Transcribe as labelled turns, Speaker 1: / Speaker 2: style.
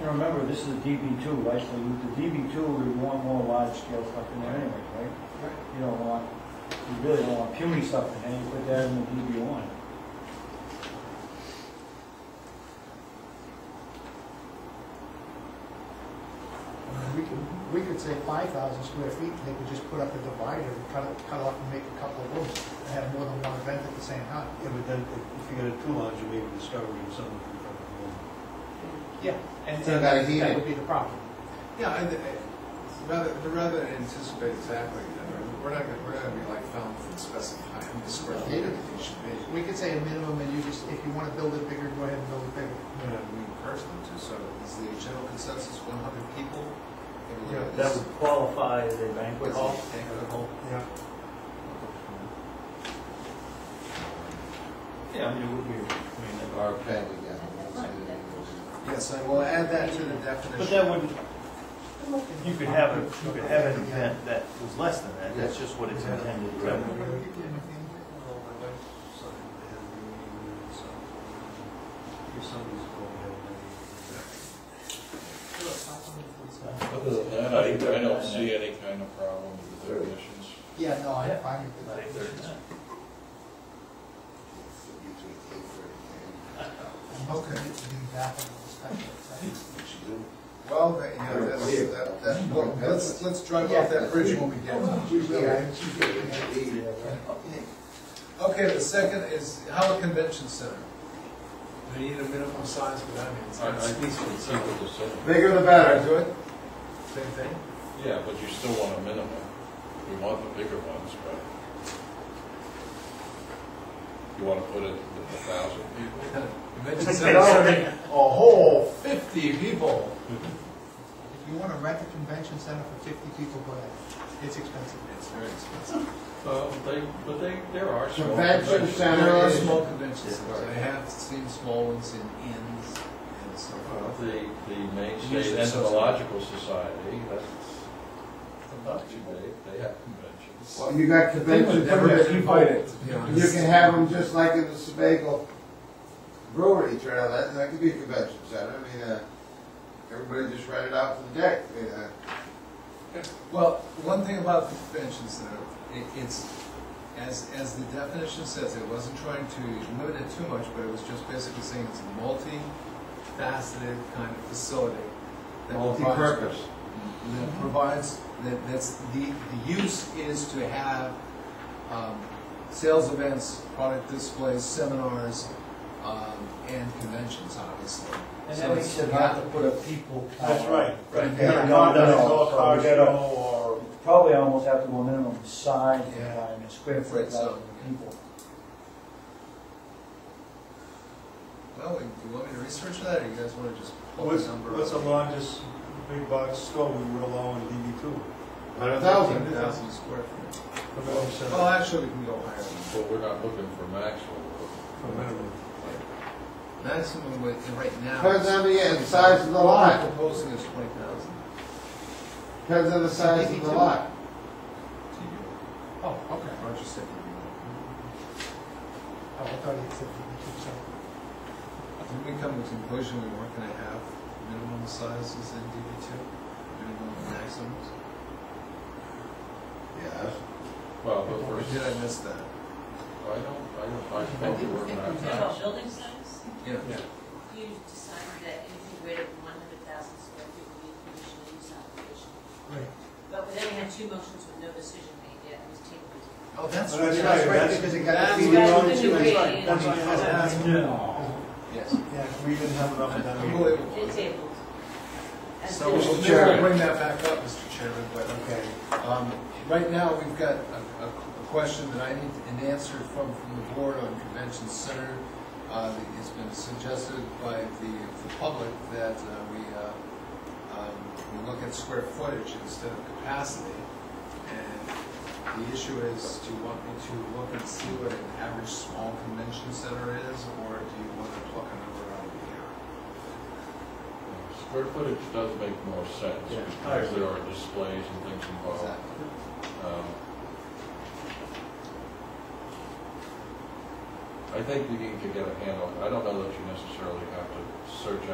Speaker 1: And remember, this is a DB two, right, so with the DB two, we want more large scale stuff in there anyway, right? You don't want, you really don't want puny stuff in there, you put that in the DB one.
Speaker 2: We could, we could say five thousand square feet, and they could just put up a divider, and cut it, cut off and make a couple of rooms, and have more than one event at the same time.
Speaker 3: Yeah, but then if- if you got it too large, you may be discovering something from front of the room.
Speaker 2: Yeah. And
Speaker 4: So
Speaker 2: so
Speaker 4: gotta
Speaker 2: that,
Speaker 4: heat
Speaker 2: that
Speaker 4: it.
Speaker 2: would be the problem.
Speaker 4: Yeah, and, uh, rather, rather than anticipate exactly, uh, we're not gonna, we're gonna be like found and specify how many square feet everything should be.
Speaker 2: We could say a minimum, and you just, if you wanna build it bigger, go ahead and build it bigger.
Speaker 4: You know, we encourage them to, so is the general consensus one hundred people? Maybe look at
Speaker 5: That
Speaker 4: this.
Speaker 5: would qualify as a banquet
Speaker 4: What's
Speaker 5: hall.
Speaker 4: it, banquet hall?
Speaker 2: Yeah.
Speaker 1: Yeah, I mean, it would be, I mean,
Speaker 6: Or Peggy,
Speaker 4: Yes, I will add that to the definition.
Speaker 5: But that wouldn't, you could have, a you could have an event that was less than that, that's just what it's intended to
Speaker 4: Well,
Speaker 5: represent.
Speaker 4: my wife's son had a meeting, so
Speaker 3: If somebody's going to have a-
Speaker 6: Other than that, I, I don't see any kind of problem with the definitions.
Speaker 2: Yeah, no, I'm fine with
Speaker 5: I
Speaker 2: that.
Speaker 5: think there's not.
Speaker 2: I'm hoping it to be back on the special side.
Speaker 4: Well, that- you know, that's, that, that, well, let's, let's drive off that bridge when we get to it. Okay, the second is, how a convention center? Do you need a minimum size for that? means?
Speaker 6: I, I think it's equal to seven.
Speaker 4: Bigger the better. Do it? Same thing?
Speaker 6: Yeah, but you still want a minimum. We want the bigger ones, but you want to put it with a thousand people?
Speaker 4: Convention center, a whole fifty people.
Speaker 2: If you wanna rent a convention center for fifty people, go ahead. It's expensive.
Speaker 4: It's very expensive.
Speaker 6: Uh, they, but they, there are small.
Speaker 4: Convention
Speaker 6: conventions.
Speaker 4: There are small convention centers. I have seen small ones in inns and so
Speaker 6: Uh,
Speaker 4: forth.
Speaker 6: The, the Maine State
Speaker 4: Usually
Speaker 6: Entomological Society, that's about too big, they have conventions.
Speaker 7: Well, you got convention permits, you
Speaker 4: to be honest.
Speaker 7: can have them just like in the Sebago Brewery Trail, that, that could be a convention center, I mean, uh, everybody just rent it out for the deck, you know.
Speaker 4: Well, one thing about the conventions though, it, it's, as, as the definition says, it wasn't trying to limit it too much, but it was just basically saying it's a multi-faceted kind of facility. that provides-
Speaker 7: multi-purpose.
Speaker 4: That provides, that, that's, the, the use is to have, um, sales events, product displays, seminars, um, and conventions, obviously.
Speaker 1: and
Speaker 4: So
Speaker 1: that makes
Speaker 4: it's
Speaker 1: sense not to put a people.
Speaker 5: That's right, right.
Speaker 1: Yeah,
Speaker 5: Not
Speaker 1: no,
Speaker 5: that it's
Speaker 1: no,
Speaker 5: all
Speaker 1: so we
Speaker 5: car
Speaker 1: gotta-
Speaker 5: show or,
Speaker 1: Probably almost have to go minimum size,
Speaker 4: Yeah.
Speaker 1: uh, and square foot,
Speaker 4: Right, so-
Speaker 1: thousand people.
Speaker 4: Well, do you want me to research that, or you guys wanna just pull
Speaker 3: What's,
Speaker 4: the number?
Speaker 3: what's the
Speaker 4: up?
Speaker 3: largest big box store we would allow in DB two?
Speaker 7: Hundred thousand.
Speaker 4: Thousand square feet.
Speaker 3: Convention
Speaker 4: Well,
Speaker 3: center
Speaker 4: actually, we can go higher. than
Speaker 6: But we're not looking for maximum.
Speaker 3: for minimum.
Speaker 4: that. Maximum width, and right now.
Speaker 7: Depends on the, yeah, the size of the
Speaker 4: What
Speaker 7: lot,
Speaker 4: I'm proposing is twenty thousand.
Speaker 7: depends on the size of the lot.
Speaker 2: Oh, okay.
Speaker 4: Roger said.
Speaker 2: Oh, I thought you said fifty-two, so.
Speaker 4: Did we come to the conclusion we weren't gonna have minimum sizes in DB two? Minimum and maximums?
Speaker 7: Yes.
Speaker 6: Well, but
Speaker 4: Or
Speaker 6: we're,
Speaker 4: did I miss that?
Speaker 6: I don't, I don't, I think we're not.
Speaker 8: Total building size,
Speaker 4: Yeah.
Speaker 8: you decided that anything greater than one hundred thousand square feet would be a conditional use application.
Speaker 2: Right.
Speaker 8: But then we had two motions with no decision made yet, it was tabled.
Speaker 4: Oh, that's
Speaker 3: Well,
Speaker 4: right.
Speaker 3: that's
Speaker 2: That's right,
Speaker 3: that's-
Speaker 2: because it got
Speaker 4: that's
Speaker 2: defeated.
Speaker 4: what
Speaker 8: I was gonna
Speaker 2: That's
Speaker 8: do.
Speaker 2: right.
Speaker 3: That's what I was asking.
Speaker 1: No.
Speaker 4: Yes.
Speaker 3: Yeah, we didn't have enough of that. meeting.
Speaker 4: Unbelievable.
Speaker 8: It's tabled. As
Speaker 4: So
Speaker 8: is.
Speaker 4: we'll never bring that back up, Mr. Chairman, but, okay. Um, Right now, we've got a, a a question that I need an answer from, from the board on convention center. Uh, that It's been suggested by the, the public that uh, we, uh, um, we look at square footage instead of capacity. And the issue is, do you want me to look and see what an average small convention center is, or do you want to pluck a number out of the air?
Speaker 6: Square footage does make more sense,
Speaker 3: Yeah.
Speaker 6: because there are displays and things involved.
Speaker 4: Exactly.
Speaker 6: Um, I think we need to get a handle, I don't know that you necessarily have to search